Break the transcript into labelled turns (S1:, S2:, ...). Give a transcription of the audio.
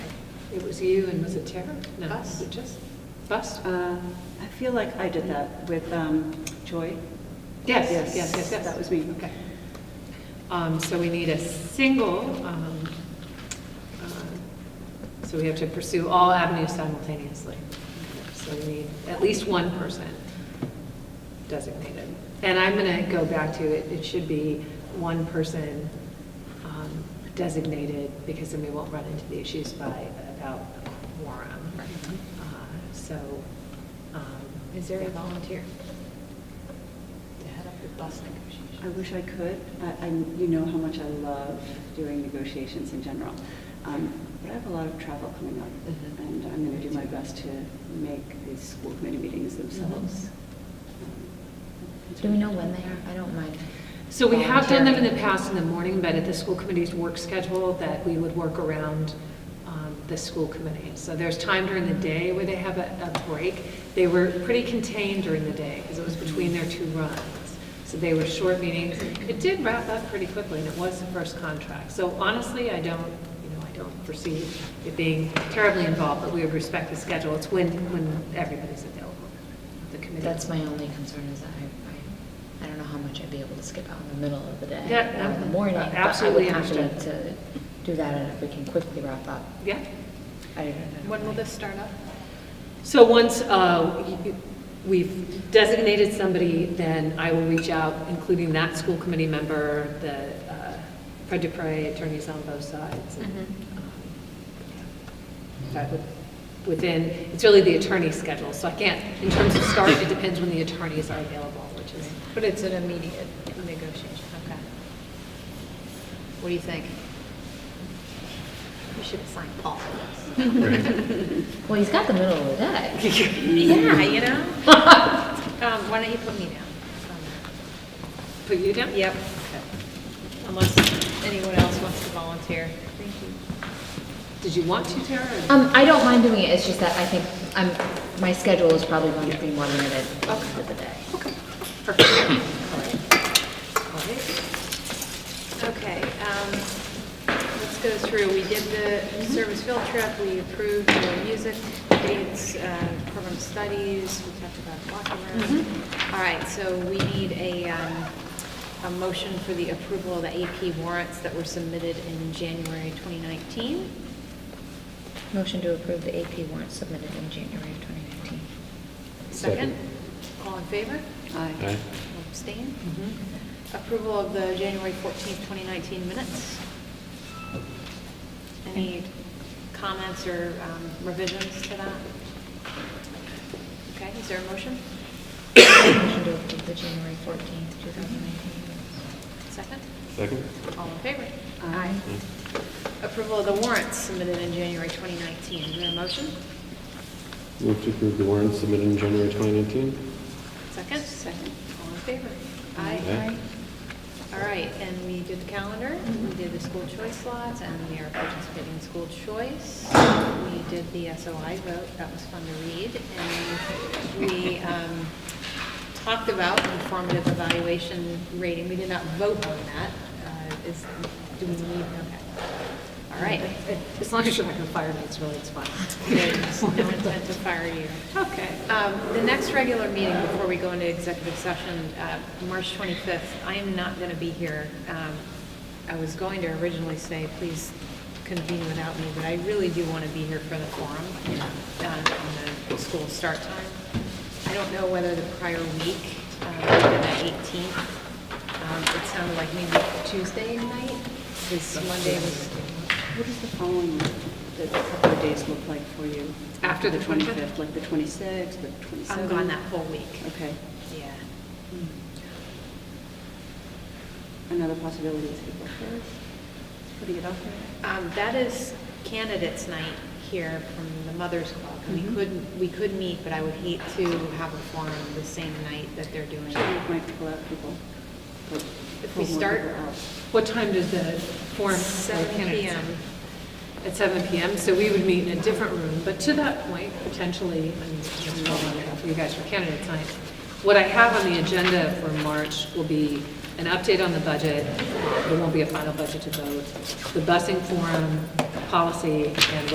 S1: It was you and was it Tara? No,
S2: Bus.
S1: was it just Bus?
S2: Uh, I feel like I did that with um, Joy.
S1: Yes, yes,
S2: Yes,
S1: yes, yes.
S2: that was me.
S1: Okay. Um, so we need a single, um, uh, so we have to pursue all avenues simultaneously. So we need at least one person designated. And I'm gonna go back to it, it should be one person, um, designated, because then we won't run into the issues by, about quorum. Uh, So, um.
S3: Is there
S1: yeah.
S3: a volunteer? To head up the bus
S2: I
S3: negotiation?
S2: wish I could. I, I- you know how much I love doing negotiations in general. Um, But I have a lot of travel coming up,
S1: Mhm.
S2: and I'm going to do my best to make these school committee meetings themselves.
S3: Mm-hmm.
S2: Um,
S3: Do we know when they are? I don't mind.
S1: So we have done them in the
S3: volunteering.
S1: past in the morning, but at the school committee's work schedule, that we would work around um, the school committee. So there's time during the day where they have a a break. They were pretty contained during the day, because it was between their two runs. So they were short meetings. It did wrap up pretty quickly, and it was the first contract. So honestly, I don't, you know, I don't foresee it being terribly involved, but we would respect the schedule. It's when, when everybody's available, the committee.
S3: That's my only concern is that I, I, I don't know how much I'd be able to skip out in the middle of the day.
S1: Yeah,
S3: or in the morning. but
S1: absolutely
S3: I would have
S1: understand.
S3: to to do that and if we can quickly wrap up.
S1: Yeah?
S3: I don't- I don't
S4: When will
S3: mind.
S4: this start up?
S1: So once uh, y- y- we've designated somebody, then I will reach out, including that school committee member, the uh, Fred Dupre, attorneys on both sides.
S4: Mm-hmm.
S1: and,
S3: Mhm.
S1: um, yeah. That would- Within, it's really the attorney's schedule, so I can't, in terms of start, it depends when the attorneys are available, which is.
S4: But it's an immediate negotiation, okay. What do you think? You should assign Paul for this.
S3: Well, he's got the middle of the day.
S4: Yeah, you know? Um, Why don't you put me down?
S1: Put you down?
S4: Yep. Unless anyone else wants to volunteer. Thank you.
S1: Did you want to, Tara? or-
S3: Um, I don't mind doing it, it's just that I think, I'm, my schedule is probably going to be more limited
S1: Okay.
S3: for the day.
S1: Perfect. All right. All right.
S4: Okay, um, let's go through, we did the service field trip, we approved the music dates, uh, program studies, we talked about walking room. All right, so we need a, um, a motion for the approval of the AP warrants that were submitted in January 2019.
S3: Motion to approve the AP warrant submitted in January of 2019.
S4: Second?
S5: Second.
S4: All in favor?
S5: Aye.
S4: Abstain?
S1: Mm-hmm.
S4: Approval of the January 14th, 2019 minutes. Any comments or um, revisions to that? Okay, is there a motion?
S3: Motion to approve the January 14th, 2019.
S4: Second?
S5: Second?
S4: All in favor?
S3: Aye.
S4: Approval of the warrants submitted in January 2019. Is there a motion?
S5: Move to approve the warrant submitted in January 2019?
S4: Second? Second. All in favor?
S5: Aye.
S4: All right, and we did the calendar, we did the school choice lots, and we are participating in school choice. We did the SOI vote, that was fun to read, and we um, talked about informative evaluation rating. We did not vote on that. Uh, Is, do we need, okay. All right.
S1: As long as you're not going to fire me, it's really, it's fine.
S4: There's No intent to fire you.
S1: Okay.
S4: Um, The next regular meeting before we go into executive session, uh, March 25th, I am not going to be here. Um, I was going to originally say, please convene without me, but I really do want to be here for the forum uh, on the school start time. I don't know whether the prior week, uh, the 18th, um, it sounded like maybe Tuesday night, this Monday was,
S2: What does the following, the couple of days look like for you?
S1: After the 25th?
S2: Like the 26th, the 27th?
S4: I'm gone that whole week.
S2: Okay.
S4: Yeah.
S2: Another possibility is April 1st, putting it out there.
S4: Um, That is candidates' night here from the Mothers Club. We
S2: Mhm.
S4: could, we could meet, but I would hate to have a forum the same night that they're doing.
S2: Should we might pull out people? Pull-
S4: If we
S2: pull more
S4: start-
S2: people out.
S1: What time does the forum for
S4: Seven
S1: candidates?
S4: PM.
S1: At seven PM, so we would meet in a different room, but to that point, potentially, I mean, just hold on after you guys for candidates night. What I have on the agenda for March will be an update on the budget, there won't be a final budget to vote, the busing forum, policy, and